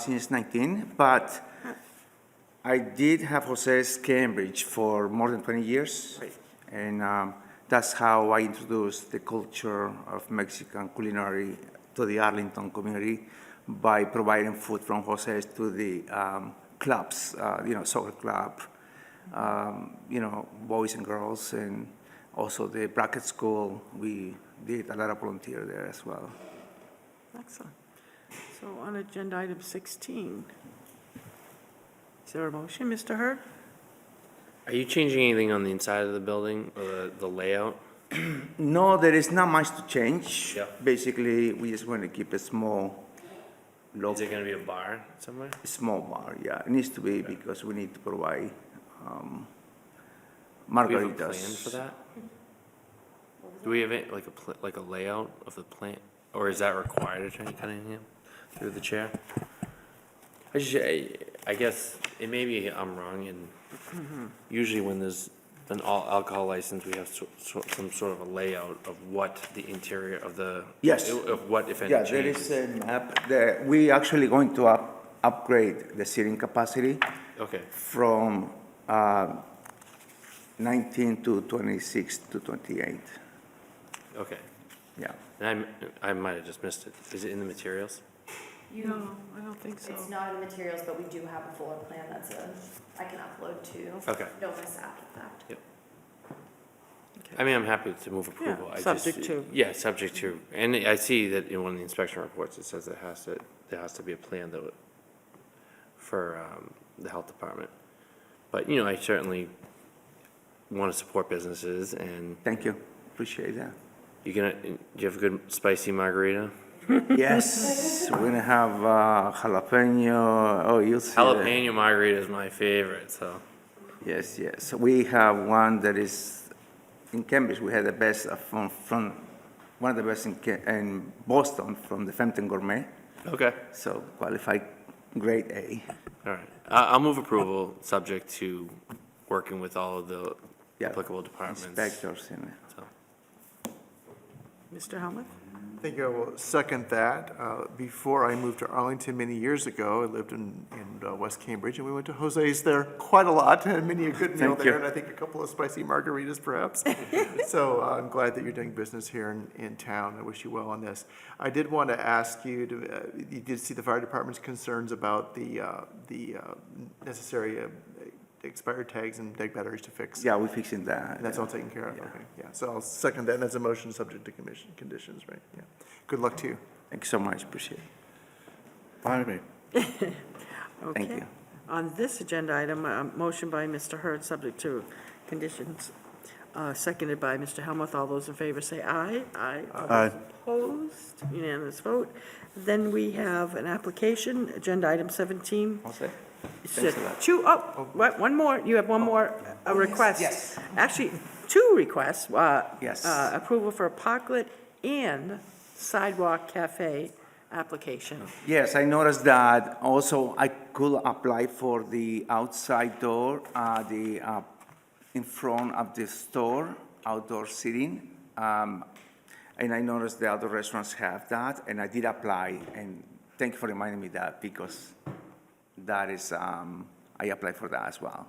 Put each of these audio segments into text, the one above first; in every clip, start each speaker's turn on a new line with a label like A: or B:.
A: since 19, but I did have Jose's Cambridge for more than 20 years.
B: Right.
A: And um, that's how I introduced the culture of Mexican culinary to the Arlington community by providing food from Jose's to the um, clubs, uh, you know, soccer club, um, you know, boys and girls, and also the bracket school. We did a lot of volunteer there as well.
B: Excellent. So on agenda item 16, is there a motion, Mr. Hurd?
C: Are you changing anything on the inside of the building or the, the layout?
A: No, there is not much to change.
C: Yeah.
A: Basically, we just want to keep a small, local,
C: Is it gonna be a bar somewhere?
A: small bar. Yeah, it needs to be because we need to provide um,
C: Do we have
A: margaritas.
C: a plan for that? Do we have it, like a, pl- like a layout of the plant, or is that required, Attorney Cunningham, through the chair? I just, I, I guess, it may be I'm wrong, and usually when there's an all alcohol license, we have so, so, some sort of a layout of what the interior of the.
A: Yes.
C: Of what, if any,
A: Yeah,
C: changes.
A: there is a map. There, we actually going to up, upgrade the seating capacity
C: Okay,
A: from uh, 19 to 26 to 28.
C: okay.
A: Yeah.
C: And I, I might have just missed it. Is it in the materials?
B: No, I don't think so.
D: It's not in the materials, but we do have a fuller plan that's a, I can upload to.
C: Okay.
D: Don't miss out on that.
C: I mean, I'm happy to move approval. I just-
B: subject to.
C: Yeah, subject to. And I see that in one of the inspection reports, it says it has to, there has to be a plan that, would- for um, the health department. But, you know, I certainly want to support businesses and
A: Thank you. Appreciate that.
C: you gonna, do you have a good spicy margarita?
A: Yes, we're gonna have uh, jalapeno. Oh, you'll see. that.
C: Jalapeno margarita is my favorite, so.
A: Yes, yes. We have one that is in Cambridge. We had the best of- from from one of the best in, Ca- in Boston from the Fenton Gourmet.
C: Okay.
A: So qualified grade A.
C: All right. I, I'll move approval, subject to working with all of the
A: Yeah.
C: applicable departments.
A: Inspectors in
C: so.
B: Mr. Helmuth?
E: I think I will second that. Uh, Before I moved to Arlington many years ago, I lived in, in uh, West Cambridge, and we went to Jose's there quite a lot, and many a good meal
A: Thank you.
E: there, and I think a couple of spicy margaritas perhaps. So uh, I'm glad that you're doing business here in, in town. I wish you well on this. I did want to ask you, to, uh, you did see the fire department's concerns about the, uh, the uh, necessary uh, expired tags and dead batteries to fix.
A: Yeah, we're fixing that.
E: And that's all taken care of,
A: Yeah.
E: okay, yeah. So I'll second that, and that's a motion subject to commission, conditions, right, yeah. Good luck to you.
A: Thank you so much. Appreciate it. Thank
B: Okay.
A: you.
B: On this agenda item, a motion by Mr. Hurd, subject to conditions, uh, seconded by Mr. Helmuth. All those in favor say aye. Aye. All those Opposed, unanimous vote. Then we have an application, agenda item 17.
A: All set?
B: Said Two, oh, what, one more, you have one more, a request.
A: yes.
B: Actually, two requests. uh,
A: Yes.
B: uh, Approval for a parklet and sidewalk cafe application.
A: Yes, I noticed that. Also, I could apply for the outside door, uh, the, uh, in front of the store, outdoor seating. Um, And I noticed the other restaurants have that, and I did apply, and thank you for reminding me that, because that is, um, I applied for that as well.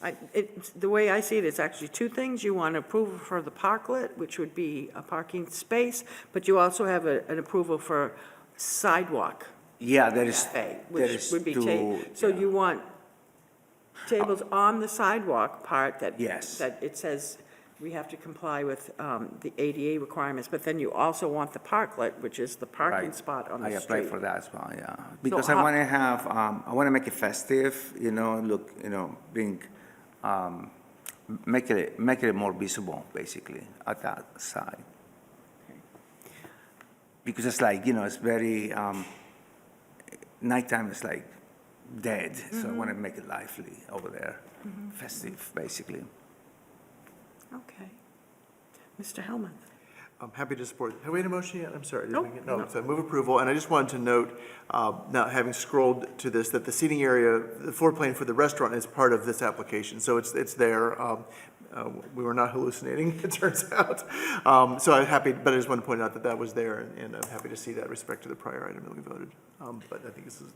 B: I- it- The way I see it, it's actually two things. You want approval for the parklet, which would be a parking space, but you also have a- an approval for sidewalk
A: Yeah, there is,
B: cafe,
A: there
B: which
A: is
B: would be ta-
A: two.
B: So you want tables on the sidewalk part that.
A: Yes.
B: That it says we have to comply with um, the ADA requirements, but then you also want the parklet, which is the parking
A: Right.
B: spot on the
A: I
B: street.
A: applied for that as well, yeah. Because I
B: how-
A: want to have, um, I want to make it festive, you know, look, you know, bring, um, make it, make it more visible, basically, at that side. Because it's like, you know, it's very, um, nighttime is like dead, so I want
B: Mm-hmm.
A: to make it lively over there, festive, basically.
B: Okay. Mr. Hellmuth?
E: I'm happy to support. Have we had a motion yet? I'm sorry. did
B: Nope,
E: we get- No,
B: no.
E: so move approval, and I just wanted to note, uh, now having scrolled to this, that the seating area, the floor plan for the restaurant is part of this application, so it's, it's there. Um, uh, We were not hallucinating, it turns out. Um, So I'm happy, but I just want to point out that that was there, and- and I'm happy to see that respect to the prior item that we voted. Um, But I think this is